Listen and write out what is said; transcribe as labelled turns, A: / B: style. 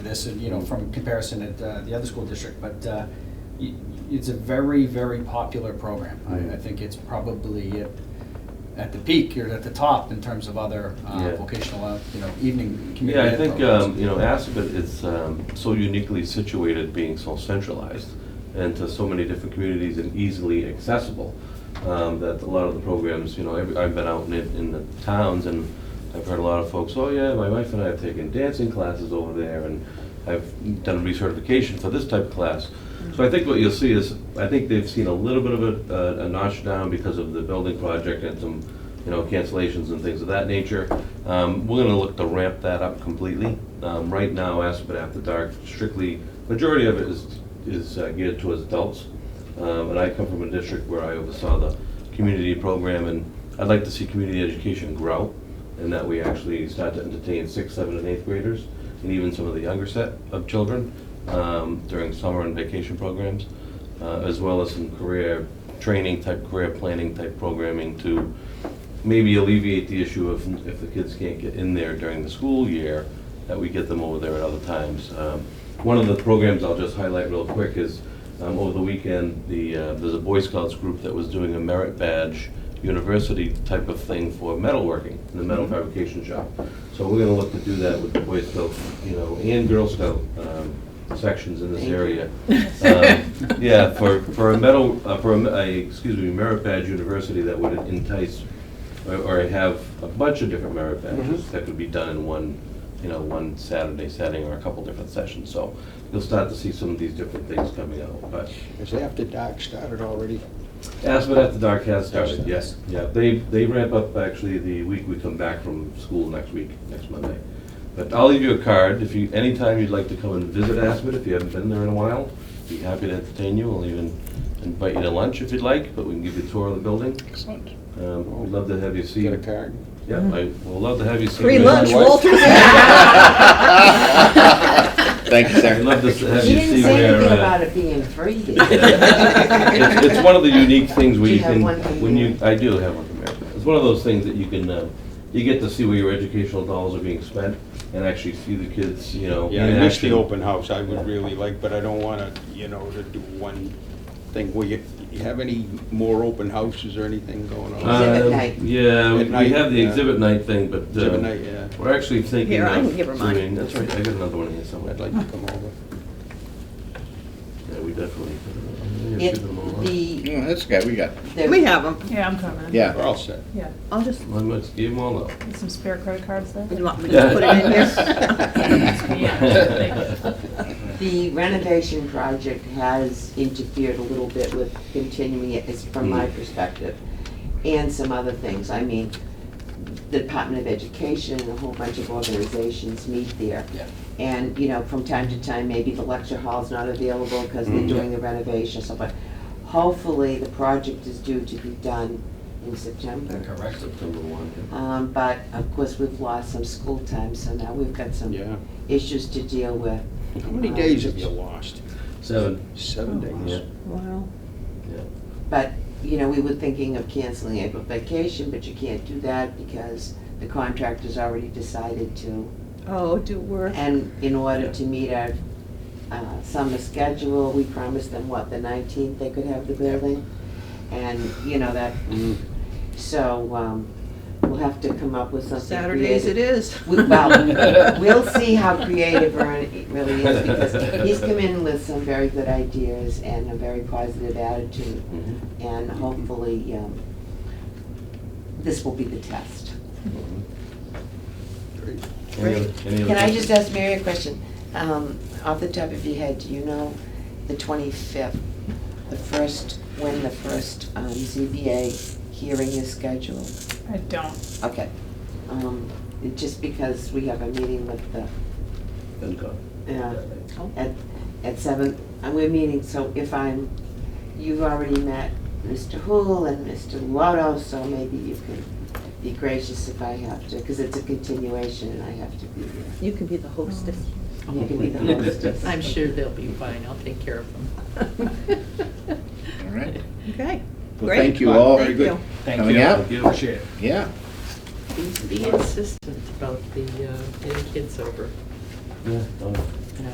A: this, and, you know, from comparison at uh, the other school district, but uh, y- it's a very, very popular program.
B: Mm-hmm.
A: I, I think it's probably at, at the peak, or at the top in terms of other uh,
B: Yeah.
A: vocational, uh, you know, evening community
B: Yeah, I
A: ed
B: think,
A: programs.
B: um, you know, Assabet is um, so uniquely situated, being so centralized, and to so many different communities and easily accessible, um, that a lot of the programs, you know, every- I've been out in, it- in the towns, and I've heard a lot of folks, oh, yeah, my wife and I have taken dancing classes over there, and I've done recertification for this type of class. So I think what you'll see is, I think they've seen a little bit of a- a a notch down because of the building project and some, you know, cancellations and things of that nature. Um, We're gonna look to ramp that up completely. Um, Right now, Aspen After Dark strictly, majority of it is is uh, geared towards adults. Um, And I come from a district where I oversaw the community program, and I'd like to see community education grow, and that we actually start to entertain sixth, seventh, and eighth graders, and even some of the younger set of children um, during summer and vacation programs, uh, as well as some career training type, career planning type programming to maybe alleviate the issue of if the kids can't get in there during the school year, that we get them over there at other times. Um, One of the programs I'll just highlight real quick is, um, over the weekend, the, uh, there's a Boy Scouts group that was doing a merit badge university type of thing for metalworking, in the metal fabrication shop. So we're gonna look to do that with the Boy Scout, you know, and Girl Scout um, sections in this area. Um, Yeah, for, for a metal, uh, for a, me- a, excuse me, merit badge university that would entice or- or have a bunch of different merit
C: Mm-hmm.
B: badges that could be done in one, you know, one Saturday setting or a couple different sessions. So you'll start to see some of these different things coming out, but
C: Is After Dark started already?
B: Aspen After Dark has started,
C: Started.
B: yes. Yeah, they, they ramp up actually the week we come back from school next week, next Monday. But I'll leave you a card if you, anytime you'd like to come and visit Aspen, if you haven't been there in a while, be happy to entertain you. We'll even invite you to lunch if you'd like, but we can give you a tour of the building.
C: Excellent.
B: Um, We'd love to have you see.
C: Get a card?
B: Yeah, I will love to have you see.
D: Free
B: me.
D: lunch,
C: wife.
D: Walter.
E: Thank you,
B: I'd love to
E: sir.
B: have
F: She
B: you
F: didn't
B: see
F: say
B: where.
F: anything
B: uh,
F: about it being free.
B: It's, it's one of the unique things where
F: Do you
B: you
F: have
B: can,
F: one from
B: when you,
F: America?
B: I do have one from America. It's one of those things that you can, uh, you get to see where your educational dollars are being spent and actually see the kids, you know.
C: Yeah,
B: in
C: I miss the
B: action.
C: open house, I would really like, but I don't wanna, you know, to do one thing. Will you, you have any more open houses or anything going on?
F: Uh, Exhibit
B: Um,
F: night.
B: Yeah,
C: At
B: we
C: night,
B: have the
C: yeah.
B: exhibit night thing, but. uh,
C: Exhibit night, yeah.
B: We're actually thinking
D: Here,
B: of.
D: I can give her mine.
B: doing- That's right, I got another one here somewhere.
C: I'd like to come over.
B: Yeah, we definitely. yeah,
F: If
B: give them all.
F: the,
E: Yeah, Oh, That's good, we got,
F: the-
D: We have them.
G: Yeah, I'm coming.
C: We're
E: yeah.
C: all set.
G: Yeah,
D: I'll just,
B: Well, let's give them all up.
G: There's some spare credit cards there.
D: you want me to just put it in here?
F: the renovation project has interfered a little bit with continuing it, it's from my perspective, and some other things. I mean, the Department of Education, a whole bunch of organizations meet there.
A: Yeah.
F: And, you know, from time to time, maybe the lecture hall's not available because they're doing the renovation, so, but hopefully, the project is due to be done in September.
A: Correct.
B: September one. yeah.
F: Um, but of course, we've lost some school time, so now we've got some
C: Yeah.
F: issues to deal with.
C: How many days have you lost?
B: Seven,
C: Seven days.
D: Wow.
B: yeah.
F: But, you know, we were thinking of canceling April vacation, but you can't do that because the contractor's already decided to.
D: Oh, do work.
F: And in order to meet our, uh, summer schedule, we promised them, what, the nineteenth they could have the building? And, you know, that,
C: Mm.
F: so, um, we'll have to come up with something
D: Saturdays
F: creative.
D: it is.
F: We- Well, we'll see how creative Vern really is, because he's come in with some very good ideas and a very positive attitude,
B: Mhm.
F: and hopefully, um, this will be the test.
C: Great.
B: Any other- any other
F: Can I
B: questions?
F: just ask Mary a question? Um, Off the top of your head, do you know the twenty-fifth, the first, when the first um, ZBA hearing is scheduled?
G: I don't.
F: Okay. Um, Just because we have a meeting with the,
B: Then go.
F: uh, at, at seven, and we're meeting, so if I'm, you've already met Mr. Hool and Mr. Lotto, so maybe you can be gracious if I have to, because it's a continuation and I have to be there.
D: You can be the hostess.
F: You can be the hostess.
H: I'm sure they'll be fine, I'll take care of them.
E: All right.
D: Okay.
E: Well,
D: Great.
E: thank you all.
D: Thank you.
A: Thank
E: Coming
A: you.
E: out?
B: Thank you.
A: Appreciate it.
E: Yeah.
H: Be insistent about the, uh, getting kids over.
B: Yeah, done.